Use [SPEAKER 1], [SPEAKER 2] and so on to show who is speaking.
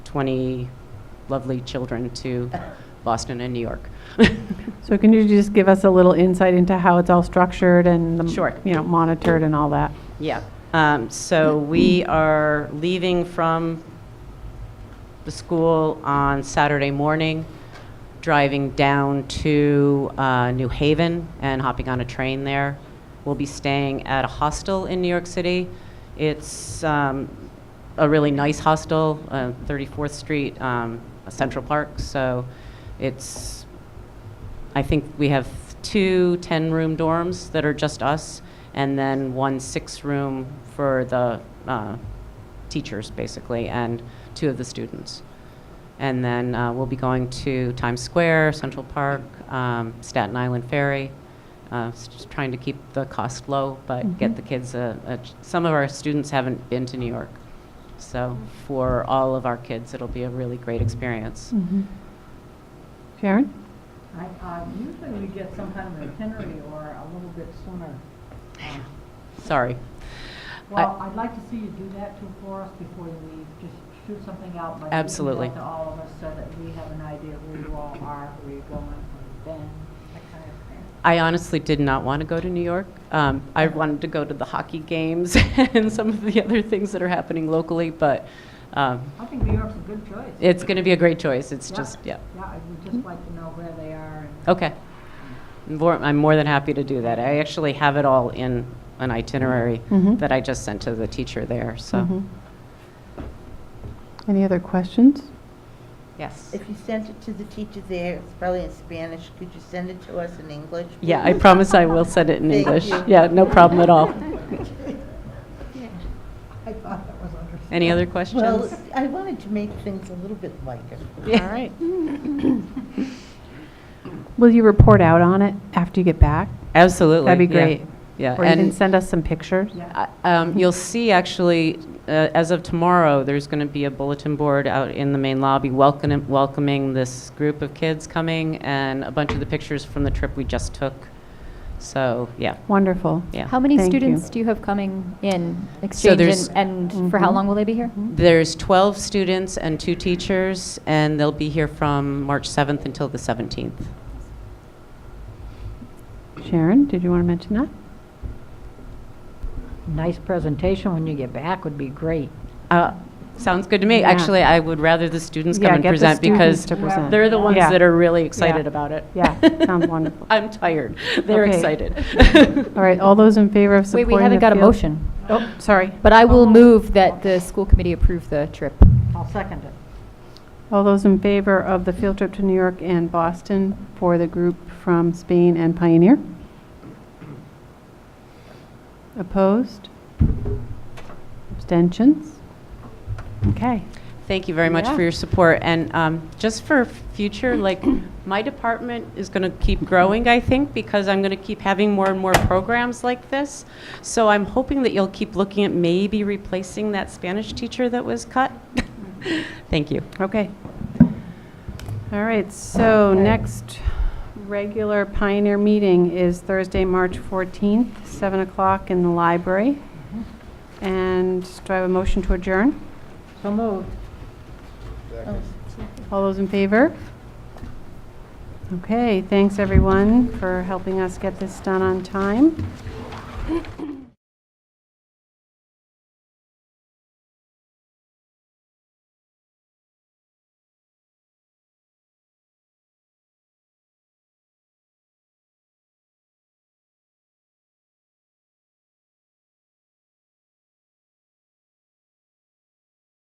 [SPEAKER 1] 20 lovely children to Boston and New York.
[SPEAKER 2] So can you just give us a little insight into how it's all structured and, the-
[SPEAKER 1] Sure.
[SPEAKER 2] you know, monitored and all that?
[SPEAKER 1] Yeah, um, so we are leaving from the school on Saturday morning, driving down to uh, New Haven and hopping on a train there. We'll be staying at a hostel in New York City. It's um, a really nice hostel, uh, 34th Street, um, Central Park, so it's I think we have two 10-room dorms that are just us, and then one six-room for the uh, teachers, basically, and two of the students. And then uh, we'll be going to Times Square, Central Park, um, Staten Island Ferry, uh, s- just trying to keep the cost low, but get the kids, a- a ch- some of our students haven't been to New York. So for all of our kids, it'll be a really great
[SPEAKER 2] Mm.
[SPEAKER 1] experience.
[SPEAKER 2] Sharon?
[SPEAKER 3] I, uh, usually we get some kind of itinerary or a little bit sooner. Um,
[SPEAKER 1] Sorry. I-
[SPEAKER 3] Well, I'd like to see you do that too for us before you leave, just shoot something out like.
[SPEAKER 1] Absolutely.
[SPEAKER 3] email To all of us so that we have an idea of where you all are, where you're going, where you've been, that kind of thing.
[SPEAKER 1] I honestly did not want to go to New York. Um, I wanted to go to the hockey games and some of the other things that are happening locally, but um,
[SPEAKER 3] I think New York's a good choice.
[SPEAKER 1] it's going to be a great choice. It's
[SPEAKER 3] Yeah.
[SPEAKER 1] just, yeah.
[SPEAKER 3] Yeah, I would just like to know where they are and.
[SPEAKER 1] Okay. More, I'm more than happy to do that. I actually have it all in an itinerary
[SPEAKER 2] Mhm.
[SPEAKER 1] that I just sent to the teacher there. So,
[SPEAKER 2] Mhm. Any other questions?
[SPEAKER 1] yes.
[SPEAKER 4] If you sent it to the teacher there, it's probably in Spanish, could you send it to us in English?
[SPEAKER 1] Yeah, I promise I will send it in
[SPEAKER 4] Thank
[SPEAKER 1] English.
[SPEAKER 4] you.
[SPEAKER 1] Yeah, no problem at all.
[SPEAKER 3] I thought that was understood.
[SPEAKER 1] Any other
[SPEAKER 4] please?
[SPEAKER 1] questions?
[SPEAKER 4] Well, I wanted to make things a little bit lighter.
[SPEAKER 1] all right.
[SPEAKER 2] Will you report out on it after you get back?
[SPEAKER 1] Absolutely.
[SPEAKER 2] That'd be
[SPEAKER 1] yeah.
[SPEAKER 2] great.
[SPEAKER 1] Yeah.
[SPEAKER 2] Or you can
[SPEAKER 1] and-
[SPEAKER 2] send us some pictures?
[SPEAKER 3] Yeah.
[SPEAKER 1] I- um, You'll see, actually, uh, as of tomorrow, there's going to be a bulletin board out in the main lobby welcoming, welcoming this group of kids coming, and a bunch of the pictures from the trip we just took. So, yeah,
[SPEAKER 2] Wonderful.
[SPEAKER 1] yeah.
[SPEAKER 5] How many
[SPEAKER 2] Thank you.
[SPEAKER 5] students do you have coming in exchange
[SPEAKER 1] there's-
[SPEAKER 5] and, and for how
[SPEAKER 2] Mhm.
[SPEAKER 5] long will they be here?
[SPEAKER 1] There's 12 students and two teachers, and they'll be here from March 7th until the 17th.
[SPEAKER 2] Sharon, did you want to mention that?
[SPEAKER 3] Nice presentation when you get back would be great.
[SPEAKER 1] Uh, Sounds good to me.
[SPEAKER 2] Yeah.
[SPEAKER 1] Actually, I would rather the students come
[SPEAKER 2] Yeah,
[SPEAKER 1] and
[SPEAKER 2] get the
[SPEAKER 1] present
[SPEAKER 2] students
[SPEAKER 1] because
[SPEAKER 2] to present.
[SPEAKER 1] they're the ones
[SPEAKER 2] Yeah.
[SPEAKER 1] that are really excited
[SPEAKER 2] Yeah.
[SPEAKER 1] about it.
[SPEAKER 2] Yeah, sounds wonderful.
[SPEAKER 1] I'm tired. They're
[SPEAKER 2] Okay.
[SPEAKER 1] excited.
[SPEAKER 2] All right, all those in favor of
[SPEAKER 5] Wait,
[SPEAKER 2] supporting
[SPEAKER 5] we haven't
[SPEAKER 2] the
[SPEAKER 5] got a
[SPEAKER 2] field-
[SPEAKER 5] motion,
[SPEAKER 2] Oh, sorry.
[SPEAKER 5] but I will move that the school committee approve the trip.
[SPEAKER 3] I'll second it.
[SPEAKER 2] All those in favor of the field trip to New York and Boston for the group from Spain and Pioneer? Opposed? Abstentions? Okay.
[SPEAKER 1] Thank you very much
[SPEAKER 2] Yeah.
[SPEAKER 1] for your support. And um, just for future, like, my department is going to keep growing, I think, because I'm going to keep having more and more programs like this. So I'm hoping that you'll keep looking at maybe replacing that Spanish teacher that was cut. Thank you.
[SPEAKER 2] Okay. All right, so next regular Pioneer meeting is Thursday, March 14th, 7 o'clock in the library. And do I have a motion to adjourn?
[SPEAKER 3] So moved.
[SPEAKER 2] All those in favor? Okay, thanks, everyone, for helping us get this done on time.